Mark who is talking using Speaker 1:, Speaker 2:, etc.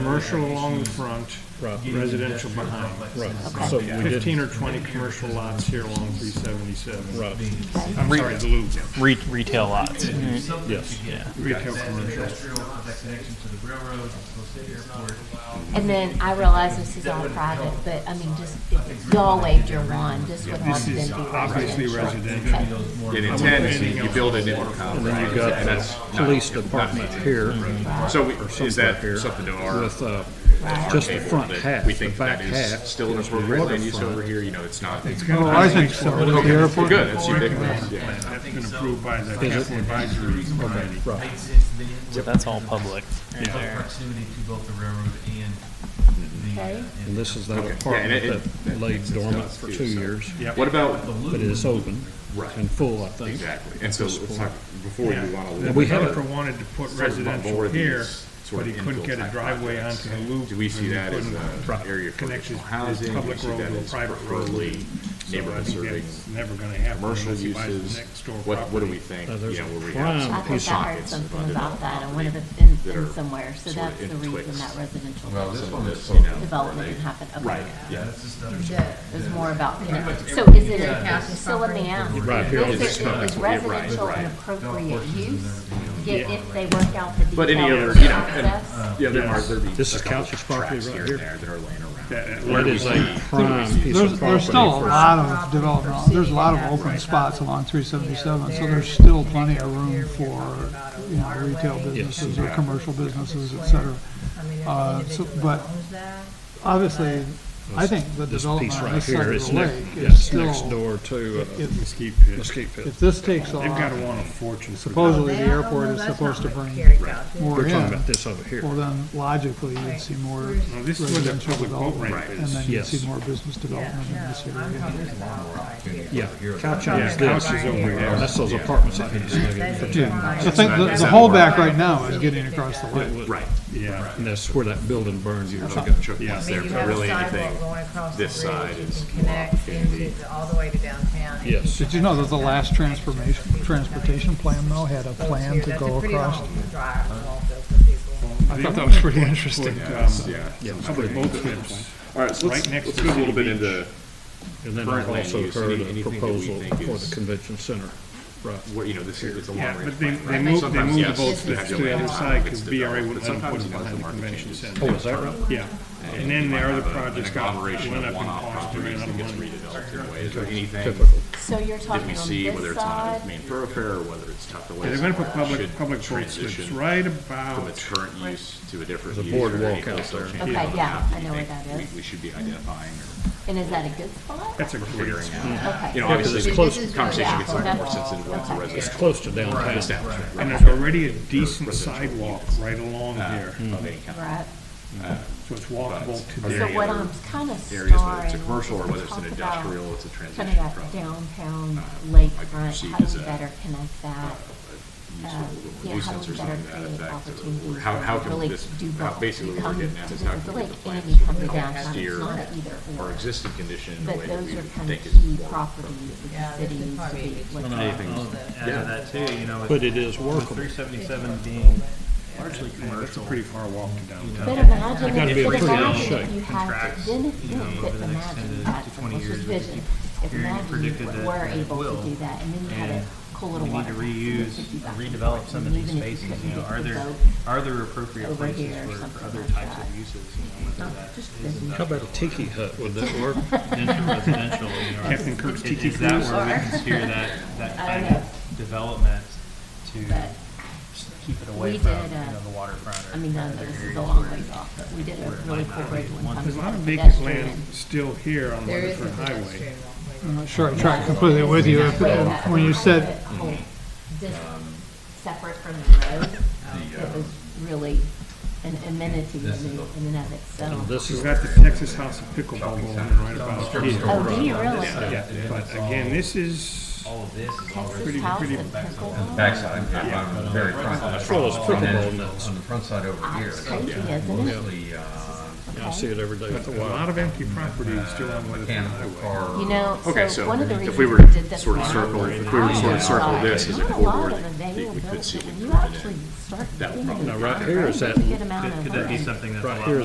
Speaker 1: Commercial along the front,
Speaker 2: Right.
Speaker 1: residential behind.
Speaker 2: Right, so we did,
Speaker 1: Fifteen or twenty commercial lots here along three seventy-seven.
Speaker 2: right,
Speaker 1: I'm sorry, the loop,
Speaker 3: Re- retail lots.
Speaker 2: yes.
Speaker 1: retail commercial.
Speaker 4: connection to the railroad, to the airport.
Speaker 5: And then I realize this is all private, but I mean, just, if y'all waved your wand, this would all
Speaker 1: This
Speaker 5: then be
Speaker 1: is obviously
Speaker 5: residential.
Speaker 1: residential.
Speaker 6: In Tennessee, you build it in compound.
Speaker 2: And you've got
Speaker 6: and that's
Speaker 2: the
Speaker 6: not-
Speaker 2: police
Speaker 6: not
Speaker 2: department
Speaker 6: needed.
Speaker 2: here
Speaker 6: So we- is
Speaker 2: something
Speaker 6: that
Speaker 2: up here
Speaker 6: something to our?
Speaker 2: with, uh,
Speaker 5: Right.
Speaker 2: just the
Speaker 6: table
Speaker 2: front
Speaker 6: that
Speaker 2: half,
Speaker 6: We
Speaker 2: the
Speaker 6: think
Speaker 2: back
Speaker 6: that is
Speaker 2: half.
Speaker 6: still an
Speaker 2: is the
Speaker 6: appropriate land use
Speaker 2: waterfront.
Speaker 6: over here, you know, it's not. it's-
Speaker 1: Oh,
Speaker 7: I think so. The
Speaker 6: We're
Speaker 7: airport,
Speaker 6: good, it's ubiculous, yeah.
Speaker 1: That's been approved by the capital advisory committee.
Speaker 2: Right,
Speaker 3: So that's all public. right
Speaker 4: Close
Speaker 3: there.
Speaker 4: proximity to both the railroad and the.
Speaker 5: Okay.
Speaker 2: and this is that
Speaker 6: Okay. Yeah, and
Speaker 2: apartment
Speaker 6: it-
Speaker 2: that
Speaker 6: it-
Speaker 2: laid
Speaker 6: it's
Speaker 2: dormant
Speaker 6: nuts,
Speaker 2: for
Speaker 6: too,
Speaker 2: two
Speaker 6: so.
Speaker 2: years,
Speaker 6: What about,
Speaker 2: but it is open
Speaker 6: Right.
Speaker 2: and full, I think.
Speaker 6: exactly, and so it's like, before you want
Speaker 1: Yeah.
Speaker 6: to.
Speaker 1: The
Speaker 2: we have-
Speaker 1: developer wanted to put residential
Speaker 6: more of these
Speaker 1: here,
Speaker 6: sort
Speaker 1: but he
Speaker 6: of
Speaker 1: couldn't
Speaker 6: infill
Speaker 1: get a
Speaker 6: type
Speaker 1: driveway
Speaker 6: projects.
Speaker 1: onto the loop.
Speaker 6: Do we see
Speaker 1: and he
Speaker 6: that as
Speaker 1: couldn't
Speaker 6: an area for
Speaker 1: connect his-
Speaker 6: additional
Speaker 1: his
Speaker 6: housing? Do we
Speaker 1: public
Speaker 6: see
Speaker 1: road
Speaker 6: that
Speaker 1: to a
Speaker 6: as
Speaker 1: private road?
Speaker 6: preferably
Speaker 1: So I
Speaker 6: Neighborhood
Speaker 1: think
Speaker 6: serving,
Speaker 1: that's never gonna happen
Speaker 6: commercial
Speaker 1: unless he buys the
Speaker 6: uses,
Speaker 1: next door
Speaker 6: what, what do
Speaker 1: property.
Speaker 6: we think?
Speaker 2: Uh,
Speaker 6: You
Speaker 2: there's
Speaker 6: know,
Speaker 2: a
Speaker 6: where we
Speaker 2: prime
Speaker 5: I
Speaker 6: have some
Speaker 5: think I heard
Speaker 6: pockets of
Speaker 5: something about that on one of the, in,
Speaker 6: that are
Speaker 5: in somewhere, so
Speaker 6: sort
Speaker 5: that's
Speaker 6: of
Speaker 5: the
Speaker 6: in
Speaker 5: reason
Speaker 6: twixt.
Speaker 5: that residential
Speaker 6: you know,
Speaker 5: development can happen. Okay.
Speaker 6: Right, yeah.
Speaker 5: Yeah, It was more about, you know, so is it, a- so let me ask.
Speaker 2: Right here on
Speaker 5: Is
Speaker 2: this
Speaker 5: it- is
Speaker 6: Yeah, right,
Speaker 5: residential
Speaker 6: right.
Speaker 5: an appropriate use? If, if they work out the details.
Speaker 6: But any other,
Speaker 5: of
Speaker 6: you know, and-
Speaker 5: access?
Speaker 6: Yeah, there are, there'd be.
Speaker 2: This
Speaker 6: a
Speaker 2: is
Speaker 6: couple
Speaker 2: Couch's property
Speaker 6: tracks
Speaker 2: right
Speaker 6: and
Speaker 2: here.
Speaker 6: there That are laying around.
Speaker 1: That- that-
Speaker 2: That is a prime piece
Speaker 7: There's,
Speaker 2: of
Speaker 7: there's still a
Speaker 2: property.
Speaker 7: lot of development, there's a lot of open spots along three seventy-seven, so there's still plenty of room for, you know, retail businesses or commercial businesses, et cetera. Uh, so, but obviously, I think the
Speaker 2: This piece
Speaker 7: development on
Speaker 2: right
Speaker 7: this side
Speaker 2: here
Speaker 7: of
Speaker 2: is
Speaker 7: the
Speaker 2: next,
Speaker 7: lake is
Speaker 2: yes, next
Speaker 7: still,
Speaker 2: door to uh,
Speaker 7: if,
Speaker 1: Mesquite pit.
Speaker 2: Mesquite Pit.
Speaker 7: if this takes
Speaker 1: They've gotta
Speaker 7: off,
Speaker 1: want a fortune. for that.
Speaker 7: supposedly the
Speaker 8: That- oh,
Speaker 7: airport
Speaker 8: no,
Speaker 7: is
Speaker 8: that's
Speaker 7: supposed to
Speaker 8: not what
Speaker 7: bring
Speaker 8: Carrie got.
Speaker 7: more
Speaker 2: We're
Speaker 7: in.
Speaker 2: talking about this over here.
Speaker 7: Well, then logically, you'd see more
Speaker 1: Now, this is where the
Speaker 7: residential
Speaker 1: public boat ramp
Speaker 7: development, and
Speaker 1: is.
Speaker 7: then you'd see
Speaker 2: Yes.
Speaker 7: more business development in this area.
Speaker 2: Yeah, Couch
Speaker 1: Yeah,
Speaker 2: is
Speaker 1: house
Speaker 2: this,
Speaker 1: is over there.
Speaker 2: that's those apartments I think you snug in for two.
Speaker 7: Yeah, I think the, the holdback right now is getting across the lake.
Speaker 6: Right,
Speaker 1: Yeah.
Speaker 2: And that's where that building burned years ago.
Speaker 6: Chuck, Chuck wants there, but really anything, this side is more opportunity.
Speaker 8: All the way to downtown.
Speaker 2: Yes,
Speaker 7: Did you know that the last transportation, transportation plan though had a plan to go across? I thought that was pretty interesting.
Speaker 1: Put,
Speaker 6: yeah.
Speaker 1: um, Public boat slips.
Speaker 6: All right, so
Speaker 1: Right
Speaker 6: let's,
Speaker 1: next
Speaker 6: let's
Speaker 1: to
Speaker 6: go a little
Speaker 1: City
Speaker 6: bit into,
Speaker 2: and then
Speaker 6: Current
Speaker 2: I've
Speaker 6: land
Speaker 2: also
Speaker 6: use,
Speaker 2: heard
Speaker 6: any-
Speaker 2: a
Speaker 6: anything that we
Speaker 2: proposal
Speaker 6: think
Speaker 2: for
Speaker 6: is-
Speaker 2: the convention center. Right,
Speaker 6: what, you know, this is, it's a long
Speaker 1: Yeah,
Speaker 6: range.
Speaker 1: but they,
Speaker 6: plan, right?
Speaker 1: they moved, they
Speaker 6: Sometimes,
Speaker 1: moved the
Speaker 6: yes,
Speaker 1: boat
Speaker 6: you
Speaker 1: slips
Speaker 6: have
Speaker 1: to
Speaker 6: your
Speaker 1: the other
Speaker 6: land
Speaker 1: side because
Speaker 6: it's
Speaker 1: BRA
Speaker 6: developed,
Speaker 1: wouldn't let
Speaker 6: but
Speaker 1: them put
Speaker 6: sometimes,
Speaker 1: it
Speaker 6: you know,
Speaker 1: behind the
Speaker 6: the market
Speaker 1: convention
Speaker 6: changes.
Speaker 1: center.
Speaker 2: oh, is that right?
Speaker 1: Yeah, and
Speaker 6: you
Speaker 1: then the
Speaker 6: might
Speaker 1: other
Speaker 6: have a- an
Speaker 1: projects got,
Speaker 6: agglomeration
Speaker 1: went up
Speaker 6: of
Speaker 1: in
Speaker 6: one-off
Speaker 1: cost and
Speaker 6: properties
Speaker 1: ran out
Speaker 6: that
Speaker 1: of
Speaker 6: gets
Speaker 1: money.
Speaker 6: redeveloped in a way. Is there anything
Speaker 2: Typical.
Speaker 5: So you're
Speaker 6: that we
Speaker 5: talking on
Speaker 6: see, whether
Speaker 5: this
Speaker 6: it's on a
Speaker 5: side?
Speaker 6: main thoroughfare or whether it's tucked away?
Speaker 1: They're gonna put
Speaker 6: somewhere,
Speaker 1: public,
Speaker 6: should
Speaker 1: public boat slips
Speaker 6: transition
Speaker 1: right
Speaker 6: From its
Speaker 1: about,
Speaker 6: current use to a different
Speaker 2: There's a
Speaker 6: use. or
Speaker 2: boardwalk
Speaker 6: anything
Speaker 2: out
Speaker 6: that's
Speaker 2: there.
Speaker 6: changing
Speaker 5: Okay,
Speaker 6: on the
Speaker 5: yeah,
Speaker 6: map
Speaker 5: I
Speaker 6: you
Speaker 5: know where
Speaker 6: think
Speaker 5: that
Speaker 6: we-
Speaker 5: is.
Speaker 6: We should be identifying
Speaker 5: And is that a good spot?
Speaker 1: that's a
Speaker 6: or
Speaker 1: great
Speaker 6: figuring out.
Speaker 5: Okay.
Speaker 6: You know,
Speaker 2: Yeah, 'cause
Speaker 6: obviously,
Speaker 2: it's
Speaker 6: the
Speaker 2: close-
Speaker 6: conversation gets a little more
Speaker 5: That's-
Speaker 6: sensitive when it's a
Speaker 5: okay.
Speaker 2: It's
Speaker 6: residential
Speaker 2: close to downtown.
Speaker 6: establishment.
Speaker 1: And
Speaker 6: right?
Speaker 1: there's already a decent
Speaker 6: residential
Speaker 1: sidewalk
Speaker 6: units. uh,
Speaker 1: right along
Speaker 6: Ah.
Speaker 1: here,
Speaker 6: Of any kind. Uh,
Speaker 5: Right. Uh,
Speaker 1: so it's walkable to
Speaker 6: But-
Speaker 1: there.
Speaker 5: So
Speaker 6: Area
Speaker 5: what
Speaker 6: or
Speaker 5: I'm kind of
Speaker 6: areas, whether it's a
Speaker 5: starring.
Speaker 6: commercial or
Speaker 5: to
Speaker 6: whether it's an
Speaker 5: talk about
Speaker 6: industrial, it's a
Speaker 5: Kind
Speaker 6: transition
Speaker 5: of
Speaker 6: from. uh,
Speaker 5: that downtown
Speaker 6: might be
Speaker 5: lakefront,
Speaker 6: perceived
Speaker 5: how do
Speaker 6: as
Speaker 5: we
Speaker 6: a-
Speaker 5: better connect that?
Speaker 6: uh,
Speaker 5: yeah, how do
Speaker 6: nuisance
Speaker 5: we better
Speaker 6: or something to that
Speaker 5: create
Speaker 6: effect. or- or
Speaker 5: opportunities
Speaker 6: How, how
Speaker 5: to
Speaker 6: can
Speaker 5: really
Speaker 6: this,
Speaker 5: do
Speaker 6: how-
Speaker 5: both?
Speaker 6: basically
Speaker 5: You
Speaker 6: what we're
Speaker 5: come
Speaker 6: getting at is
Speaker 5: to visit the
Speaker 6: how can we
Speaker 5: lake and
Speaker 6: define
Speaker 5: you come to
Speaker 6: sort of
Speaker 5: downtown, it's
Speaker 6: steer
Speaker 5: not an either
Speaker 6: our
Speaker 5: or.
Speaker 6: existing condition in a way
Speaker 5: But
Speaker 6: that
Speaker 5: those
Speaker 6: we
Speaker 5: are
Speaker 6: would
Speaker 5: kind of
Speaker 6: think is
Speaker 5: key
Speaker 6: more
Speaker 5: properties of
Speaker 8: Yeah,
Speaker 5: the
Speaker 8: this
Speaker 5: city
Speaker 8: is
Speaker 5: to
Speaker 8: probably-
Speaker 5: be looking
Speaker 6: Anything.
Speaker 5: at.
Speaker 4: Add to that too, you know, with
Speaker 2: But it is workable.
Speaker 4: three seventy-seven being largely
Speaker 1: That's a
Speaker 4: commercial.
Speaker 1: pretty far walk to downtown.
Speaker 5: But imagine,
Speaker 2: gotta be a
Speaker 5: but
Speaker 2: pretty good
Speaker 5: imagine
Speaker 2: shape.
Speaker 5: if you had, to- then if,
Speaker 4: you know,
Speaker 5: if,
Speaker 4: over the next
Speaker 5: imagine
Speaker 4: 10 to
Speaker 5: that,
Speaker 4: 20
Speaker 5: which is
Speaker 4: years, it's
Speaker 5: vision, if
Speaker 4: very
Speaker 5: imagine
Speaker 4: predicted
Speaker 5: you
Speaker 4: that
Speaker 5: were
Speaker 4: it
Speaker 5: able
Speaker 4: will,
Speaker 5: to do that, and then you had a
Speaker 4: and
Speaker 5: cool little
Speaker 4: We need to
Speaker 5: water. fountain
Speaker 4: reuse,
Speaker 5: that you got
Speaker 4: and
Speaker 5: before,
Speaker 4: redevelop some of these
Speaker 5: even if you
Speaker 4: spaces,
Speaker 5: couldn't
Speaker 4: you know,
Speaker 5: get
Speaker 4: are
Speaker 5: the
Speaker 4: there,
Speaker 5: boat
Speaker 4: are there appropriate
Speaker 5: over
Speaker 4: places
Speaker 5: here or
Speaker 4: for, for
Speaker 5: something
Speaker 4: other
Speaker 5: like
Speaker 4: types
Speaker 5: that. Oh,
Speaker 4: of uses, you know, whether that is
Speaker 5: business.
Speaker 2: How about a tiki hut, would that work?
Speaker 4: denser residential, you know.
Speaker 1: Captain Kirk's
Speaker 4: is-
Speaker 1: Tiki
Speaker 4: Is that
Speaker 1: Cruise.
Speaker 4: where we can steer that, that
Speaker 5: I don't
Speaker 4: kind
Speaker 5: know.
Speaker 4: of development to
Speaker 5: But
Speaker 4: s- keep it away
Speaker 5: we
Speaker 4: from,
Speaker 5: did,
Speaker 4: you
Speaker 5: uh,
Speaker 4: know, the waterfront?
Speaker 5: I
Speaker 4: or
Speaker 5: mean, no,
Speaker 4: other
Speaker 5: this is
Speaker 4: areas
Speaker 5: a long
Speaker 4: where-
Speaker 5: ways off, but we did a really cool bridge one time.
Speaker 1: There's a lot of
Speaker 5: with
Speaker 1: vacant
Speaker 5: pedestrian.
Speaker 1: land still here on
Speaker 8: There is a
Speaker 1: Weatherford Highway.
Speaker 8: pedestrian walkway.
Speaker 7: I'm not sure I track completely with you, if- if- when you said
Speaker 5: Whole- This separate from the road, um, it was really an amenity in the- in and of itself.
Speaker 2: This
Speaker 1: We've
Speaker 2: is,
Speaker 1: got the Texas House of Pickleball going right about here.
Speaker 5: Oh, do you really?
Speaker 1: Yeah, but again, this is,
Speaker 4: All of this is already.
Speaker 5: Texas House
Speaker 1: pretty-
Speaker 5: of Pickleball?
Speaker 9: backside, I'm I'm very front. on the
Speaker 2: well, it's
Speaker 9: front.
Speaker 2: pickleball nets.
Speaker 9: On the front side over here,
Speaker 5: It's
Speaker 9: it's
Speaker 5: crazy, isn't it?
Speaker 9: mostly uh,
Speaker 2: Yeah, I see it every day
Speaker 1: but
Speaker 2: at the
Speaker 1: a
Speaker 2: Y.
Speaker 1: lot of empty property
Speaker 4: Uh,
Speaker 1: is still on Weatherford
Speaker 9: mechanical
Speaker 1: Highway.
Speaker 9: car.
Speaker 5: You know,
Speaker 6: Okay,
Speaker 5: so
Speaker 6: so
Speaker 5: one of the
Speaker 6: if
Speaker 5: reasons
Speaker 6: we
Speaker 5: we
Speaker 6: were to
Speaker 5: did this.
Speaker 6: sort of
Speaker 5: one-
Speaker 6: circle, if we were to sort of circle this as a
Speaker 5: Not a lot
Speaker 6: corridor
Speaker 5: of
Speaker 6: that we could see
Speaker 5: availability.
Speaker 6: in
Speaker 5: You
Speaker 6: front of
Speaker 5: actually start
Speaker 6: that
Speaker 5: getting
Speaker 6: problem.
Speaker 5: a
Speaker 2: Now, right here is
Speaker 5: pretty
Speaker 2: that-
Speaker 5: good amount
Speaker 4: Could
Speaker 5: of
Speaker 4: could that be
Speaker 5: land.
Speaker 4: something that's a
Speaker 2: Right
Speaker 4: lot
Speaker 2: here